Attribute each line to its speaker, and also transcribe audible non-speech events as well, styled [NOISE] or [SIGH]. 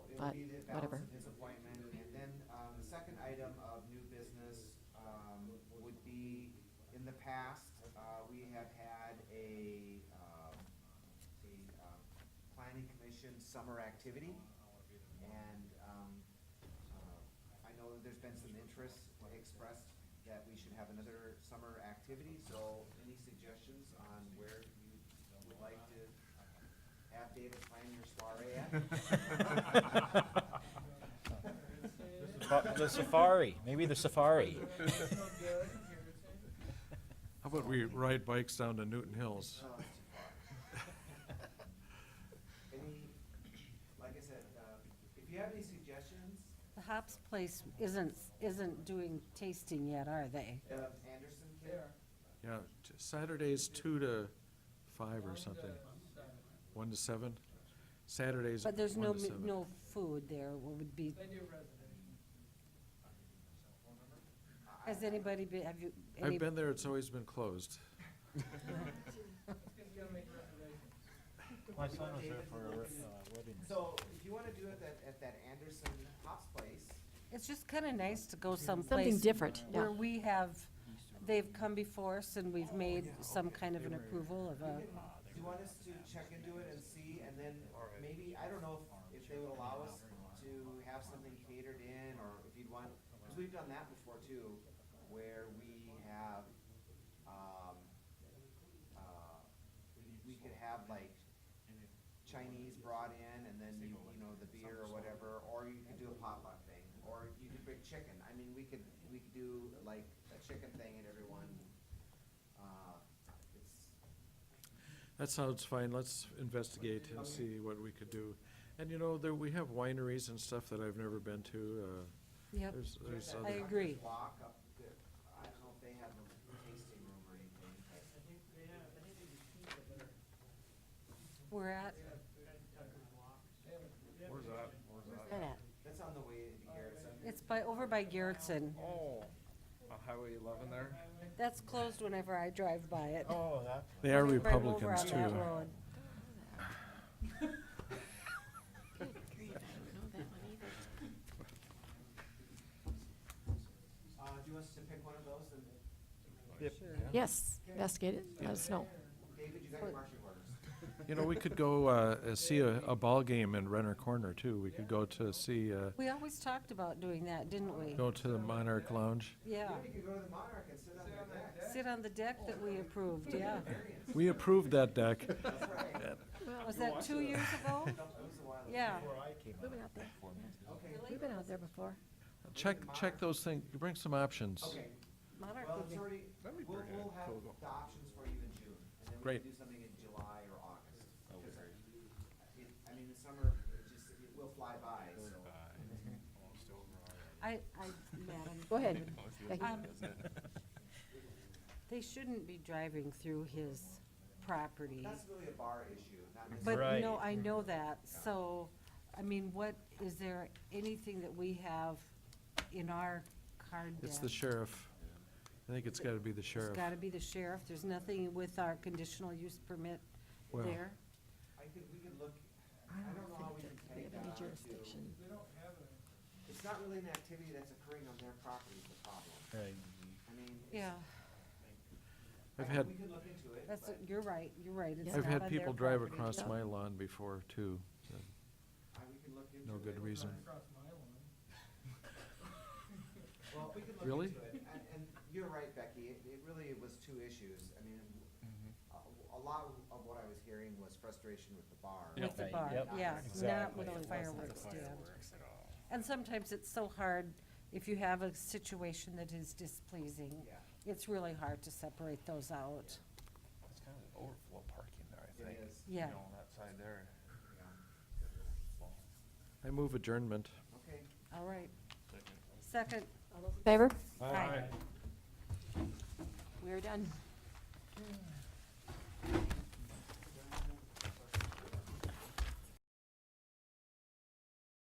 Speaker 1: but
Speaker 2: be the balance
Speaker 1: whatever.
Speaker 2: of his appointment. And then, um, the second item of new business, um, would be, in the past, uh, we have had a, um, a, um, planning commission summer activity. And, um, uh, I know that there's been some interest expressed that we should have another summer activity, so any suggestions on where you would like to have David plan your soiree at?
Speaker 3: Fa- [LAUGHS] The safari, maybe the safari.
Speaker 4: How about we ride bikes down to Newton Hills?
Speaker 2: Oh, it's too far. Any, like I said, uh, if you have any suggestions,
Speaker 5: The Hops Place isn't, isn't doing tasting yet, are they?
Speaker 2: uh, Anderson kid?
Speaker 4: [LAUGHS] Yeah, t- Saturday's two to five or something. One to seven? Saturday's one
Speaker 5: But there's no,
Speaker 4: to
Speaker 5: mi-
Speaker 4: seven.
Speaker 5: no food there, what would be, has anybody been, have you? any-
Speaker 4: I've been there, it's always been closed.
Speaker 3: My
Speaker 2: son was there for a re-
Speaker 3: wedding.
Speaker 2: So if you wanna do it at, at that Anderson Hops Place,
Speaker 5: It's just kinda nice to go someplace.
Speaker 1: different, yeah.
Speaker 5: Where we have, they've come before us and we've made some kind of an approval of a,
Speaker 2: do you want us to check into it and see, and then maybe, I don't know if, if they would allow us to have something catered in, or if you'd want, cause we've done that before too, where we have, um, uh, we could have like Chinese brought in, and then you, you know, the beer or whatever, or you could do a potluck thing, or you could bring chicken, I mean, we could, we could do like a chicken thing and everyone, uh, it's,
Speaker 4: That sounds fine, let's investigate and see what we could do. And you know, there, we have wineries and stuff that I've never been to, uh,
Speaker 5: yep,
Speaker 4: there's, there's
Speaker 5: I
Speaker 4: other,
Speaker 5: agree.
Speaker 2: block up the, I don't know if they have a tasting room or anything, but
Speaker 5: We're at,
Speaker 1: Look at
Speaker 2: that's on the way to Garrett's.
Speaker 5: it's by, over by Garrettson.
Speaker 6: Oh, on Highway eleven there?
Speaker 5: That's closed whenever I drive by it.
Speaker 3: Oh, that.
Speaker 4: they are
Speaker 5: Right over
Speaker 4: Republicans
Speaker 5: on
Speaker 4: too.
Speaker 5: that road.
Speaker 1: that. Good grief, I don't know that one either.
Speaker 2: Uh, do you want us to pick one of those, and
Speaker 1: Yes, investigate it, let us know.
Speaker 2: David, you got your marching orders?
Speaker 4: You know, we could go, uh, uh, see a, a ball game in Renner Corner too. We could go to see, uh,
Speaker 5: We always talked about doing that, didn't we?
Speaker 4: go to the Monarch Lounge.
Speaker 5: Yeah,
Speaker 2: You could go to the Monarch and sit on their deck.
Speaker 5: sit on the deck that we approved, yeah.
Speaker 4: We approved that deck.
Speaker 2: That's right.
Speaker 5: Was that two years ago?
Speaker 2: That was a while ago.
Speaker 5: Yeah.
Speaker 1: We've been out there,
Speaker 2: Okay,
Speaker 1: we've been out there before.
Speaker 4: Check, check those things, bring some options.
Speaker 2: okay,
Speaker 5: Monarch
Speaker 2: well,
Speaker 5: would be-
Speaker 2: it's already,
Speaker 6: Let me
Speaker 2: we'll,
Speaker 6: bring
Speaker 2: we'll
Speaker 6: a
Speaker 2: have
Speaker 6: Kogo.
Speaker 2: the options for you in June, and then we
Speaker 4: Great.
Speaker 2: can do something in July or August. Because I- it- I mean, the summer, it just, it will fly by, so.
Speaker 5: I, I, Madam.
Speaker 1: Go ahead. Becky.
Speaker 5: Um, They shouldn't be driving through his property.
Speaker 2: That's really a bar issue, not
Speaker 5: But,
Speaker 2: necessarily.
Speaker 3: Right.
Speaker 5: no, I know that, so, I mean, what, is there anything that we have in our card deck?
Speaker 4: It's the sheriff. I think it's gotta be the
Speaker 5: It's
Speaker 4: sheriff.
Speaker 5: gotta be the sheriff, there's nothing with our conditional use permit
Speaker 4: Well,
Speaker 5: there?
Speaker 2: I think we could look,
Speaker 1: I
Speaker 2: I don't know how
Speaker 1: don't
Speaker 2: we
Speaker 1: think
Speaker 2: can
Speaker 1: that we
Speaker 2: tag
Speaker 1: have
Speaker 2: that
Speaker 1: any
Speaker 2: on to,
Speaker 1: jurisdiction.
Speaker 2: it's not really an activity that's occurring on their property is the problem.
Speaker 3: Right.
Speaker 2: I mean, it's-
Speaker 5: Yeah,
Speaker 4: I've
Speaker 2: I-
Speaker 4: had-
Speaker 2: We could look into it,
Speaker 5: that's,
Speaker 2: but
Speaker 5: you're right, you're right, it's
Speaker 1: Yeah.
Speaker 4: I've
Speaker 5: not
Speaker 4: had
Speaker 5: on their
Speaker 4: people drive
Speaker 5: property.
Speaker 4: across
Speaker 1: Yeah.
Speaker 4: my lawn before too. Uh,
Speaker 2: I- we could look into it.
Speaker 4: No good reason.
Speaker 2: Well, we could look
Speaker 4: Really?
Speaker 2: into it, and, and you're right, Becky, it, it really was two issues, I mean, a,
Speaker 4: Mm-hmm.
Speaker 2: a lot of what I was hearing was frustration with the bar.
Speaker 5: With the
Speaker 3: Right,
Speaker 5: bar,
Speaker 3: yep,
Speaker 5: yeah, not
Speaker 3: exactly.
Speaker 5: with
Speaker 3: It
Speaker 5: the
Speaker 3: wasn't
Speaker 5: fireworks stand. And sometimes it's so hard, if you have a situation that is displeasing,
Speaker 2: Yeah,
Speaker 5: it's really hard to separate those out.
Speaker 6: It's kind of an overflow parking there, I
Speaker 2: it
Speaker 6: think.
Speaker 2: is,
Speaker 5: Yeah,
Speaker 6: You know, on that side there.
Speaker 2: yeah,
Speaker 4: I move adjournment.
Speaker 2: okay.
Speaker 5: all right. Second,
Speaker 1: Favor?
Speaker 5: Aye.
Speaker 1: We're done.